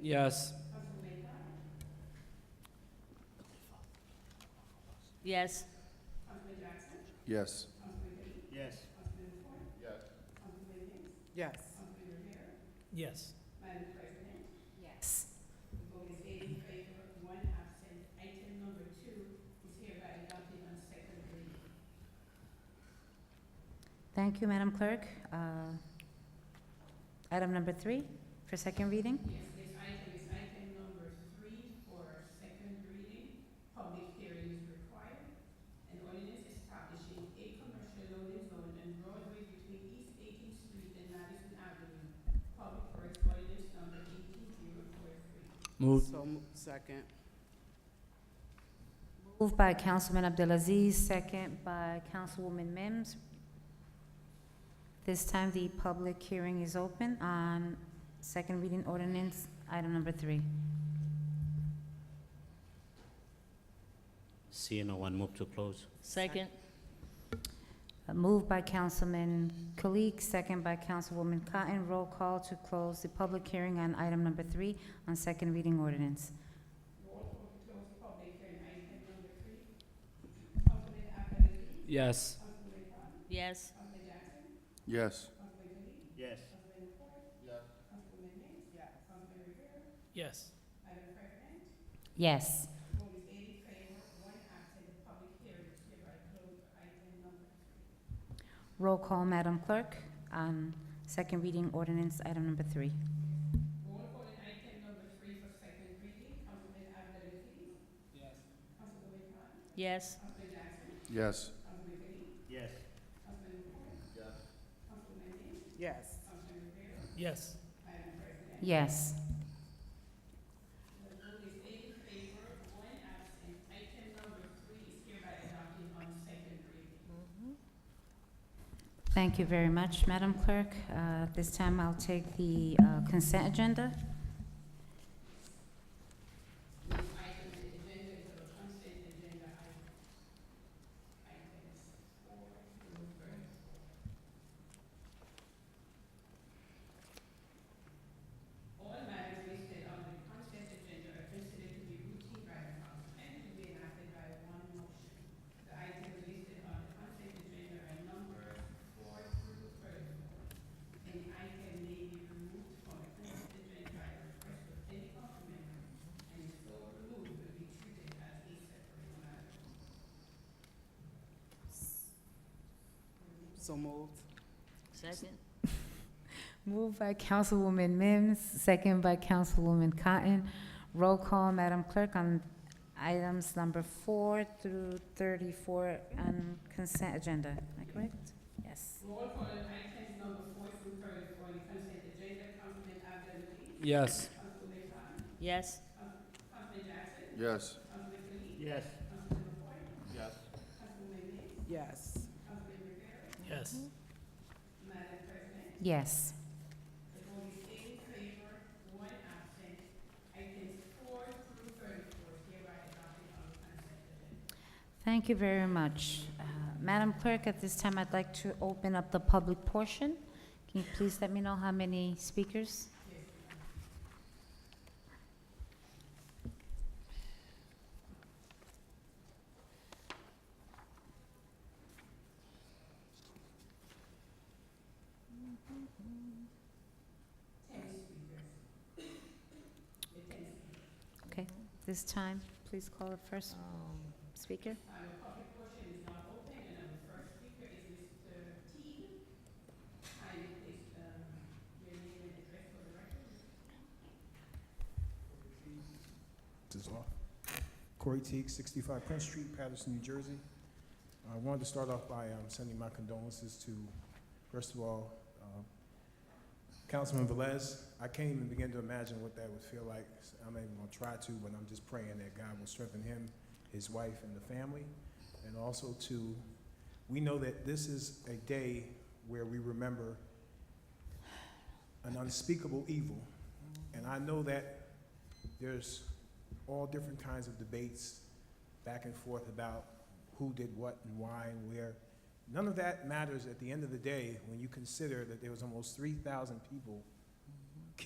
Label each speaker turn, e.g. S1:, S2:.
S1: Yes.
S2: Yes.
S3: Yes.
S4: Yes.
S5: Yes.
S1: Yes.
S3: Yes. Thank you, Madam Clerk. Uh, Item number three, for second reading?
S1: Move.
S5: So, mo- second.
S3: Moved by Councilman Abdelaziz, second by Councilwoman Mims. This time, the public hearing is open on second reading ordinance, item number three.
S4: Seeing no one, move to close.
S5: Second.
S3: Uh, Moved by Councilman Kalik, second by Councilwoman Cotton. Roll call to close the public hearing on item number three on second reading ordinance.
S1: Yes.
S3: Yes.
S2: Yes.
S4: Yes.
S1: Yes.
S3: Yes. Roll call, Madam Clerk, on second reading ordinance, item number three. Yes.
S2: Yes.
S4: Yes.
S1: Yes.
S5: Yes.
S3: Yes. Thank you very much, Madam Clerk. Uh, This time, I'll take the uh, consent agenda.
S5: So moved.
S3: Second. Moved by Councilwoman Mims, second by Councilwoman Cotton. Roll call, Madam Clerk, on items number four through thirty-four on consent agenda. Am I correct? Yes.
S1: Yes.
S3: Yes.
S2: Yes.
S4: Yes.
S2: Yes.
S5: Yes.
S1: Yes.
S3: Yes. Thank you very much. Uh, Madam Clerk, at this time, I'd like to open up the public portion. Can you please let me know how many speakers? Okay, this time, please call the first speaker.
S6: This is law. Corey Teague, 65 Prince Street, Patterson, New Jersey. I wanted to start off by um, sending my condolences to, first of all, um, Councilman Velez. I can't even begin to imagine what that would feel like. I'm not even gonna try to, but I'm just praying that God will strengthen him, his wife, and the family. And also to, we know that this is a day where we remember an unspeakable evil. And I know that there's all different kinds of debates back and forth about who did what and why and where. None of that matters at the end of the day when you consider that there was almost 3,000 people